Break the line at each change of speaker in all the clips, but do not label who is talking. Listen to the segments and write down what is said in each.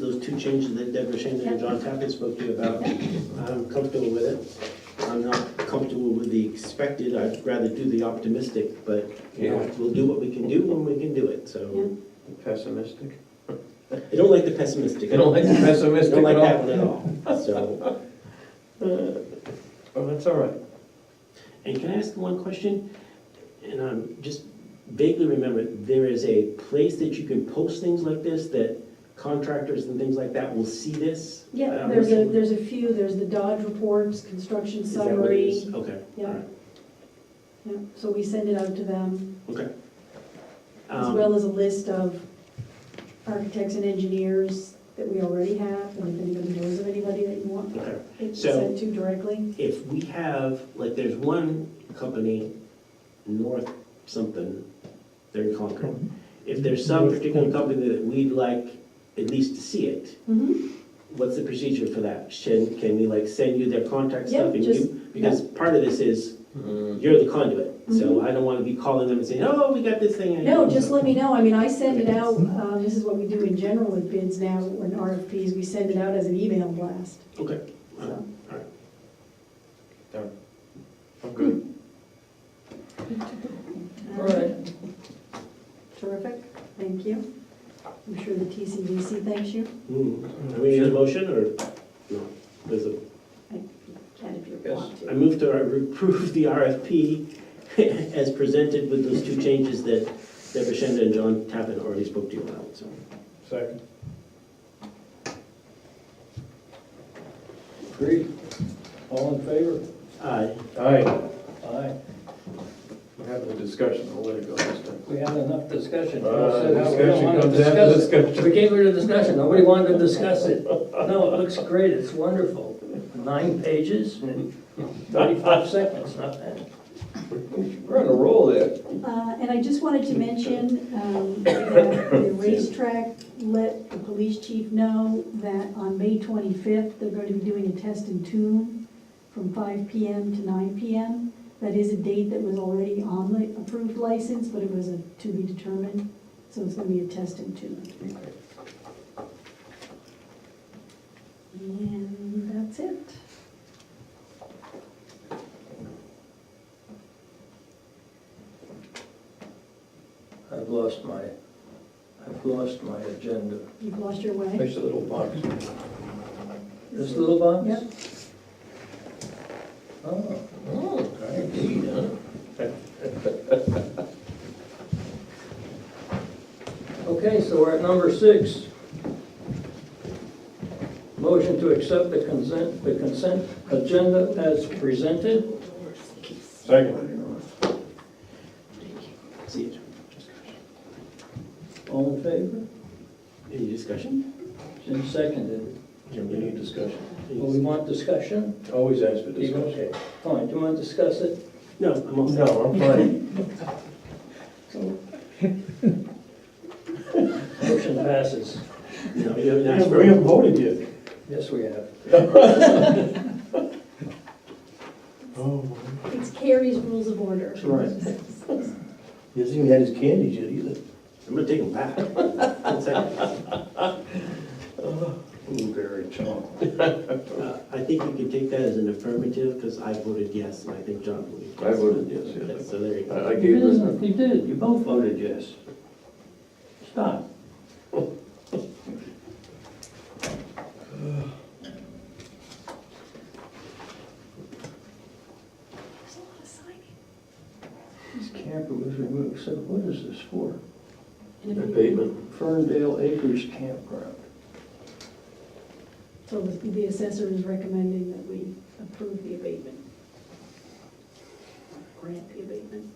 two changes that Deborah Shannon and John Tackett spoke to you about. I'm comfortable with it. I'm not comfortable with the expected, I'd rather do the optimistic, but, you know,
Yeah.
we'll do what we can do when we can do it, so.
Pessimistic?
I don't like the pessimistic.
You don't like the
I
pessimistic
don't like
at
that
all?
one at all, so.
Oh, that's all right.
And can I ask one question? And I'm just vaguely remember, there is a place that you can post things like this, that contractors and things like that will see this?
Yeah,
Um,
there's a, there's a few, there's the Dodge reports, construction
Is that what it
summary.
is? Okay.
Yeah.
all right,
Yeah, So we send it out to them,
Okay.
as
Um,
well as a list of architects and engineers that we already have, and if anybody knows of anybody that you want
Okay.
it
So-
sent to directly.
If we have, like, there's one company, North something, they're in Concord. If there's some particular company that we'd like at least to see it,
Mhm.
what's the procedure for that? Can, can we like send you their contact
Yeah,
stuff and
just-
you, because part of this is,
Mm,
you're the conduit. So I don't wanna be calling them and saying, oh, we got this thing. Mm-hmm. and-
Mm-hmm. No, just let me know, I mean, I send it out, um, this is what we do in general with bids now, when RFPs, we send it out as an email blast,
Okay,
so.
I'm good.
All right. uh, Terrific, thank you. I'm sure the TCDC thanks you.
Hmm. are we in a motion or? No, there's a
Ken, if you
Yes.
want to.
I move to approve the RFP as presented with those two changes that Deborah Shenda and John Tappan already spoke to you about, so.
Second. Agreed.
All in favor?
Aye.
Aye.
Aye.
We're having a discussion, I'll let it go this time.
We had enough discussion. Joe said
Uh,
how we don't
Discussion
wanna
comes after
discuss it.
discussion.
We came here to discuss it, nobody wanted to discuss it. No, it looks great, it's wonderful. Nine pages and 35 seconds, not bad.
We're on a roll there.
Uh, And I just wanted to mention, um, that the racetrack let the police chief know that on May 25th, they're going to be doing a test and tune from 5 PM to 9 PM. That is a date that was already on the approved license, but it was a to be determined, so it's going to be a test and tune. And that's it.
I've lost my, I've lost my agenda.
You've lost your way.
Nice little box.
This little box?
Yep.
Oh,
Oh, indeed, huh?
okay, so we're at number six. Motion to accept the consent, the consent agenda as presented.
Second.
See you.
All in favor?
Any discussion?
Jim seconded.
We need discussion.
Well, we want discussion?
Always ask for discussion.
Okay, fine, do you want to discuss it?
No, I'm all set.
No, I'm fine.
Motion passes.
No, you haven't asked for
We
it.
haven't voted yet.
Yes, we have.
Oh,
It's Carrie's Rules of Order.
That's right.
he hasn't even had his candies yet either.
I'm gonna take them back. One second.
Blueberry chocolate.
Uh, I think you can take that as an affirmative, because I voted yes, and I think John voted yes.
I voted yes, yes.
So there you go.
I I
You
gave her,
didn't, you did, you both voted yes. Stop.
There's a lot of signing.
This camper was removed, so what is this for?
abatement,
Ferndale Acres Campground.
So the the assessor is recommending that we approve the abatement. Grant the abatement.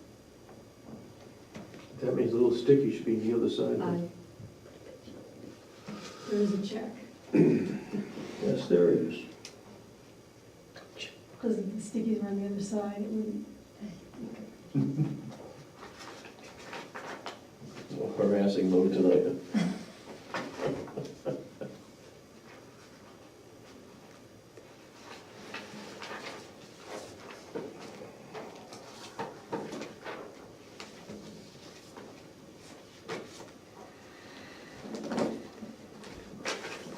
that means a little sticky should be on the other side.
There is a check,
Yes, there is.
because if the stickies were on the other side, it wouldn't.
More Harassing mode tonight.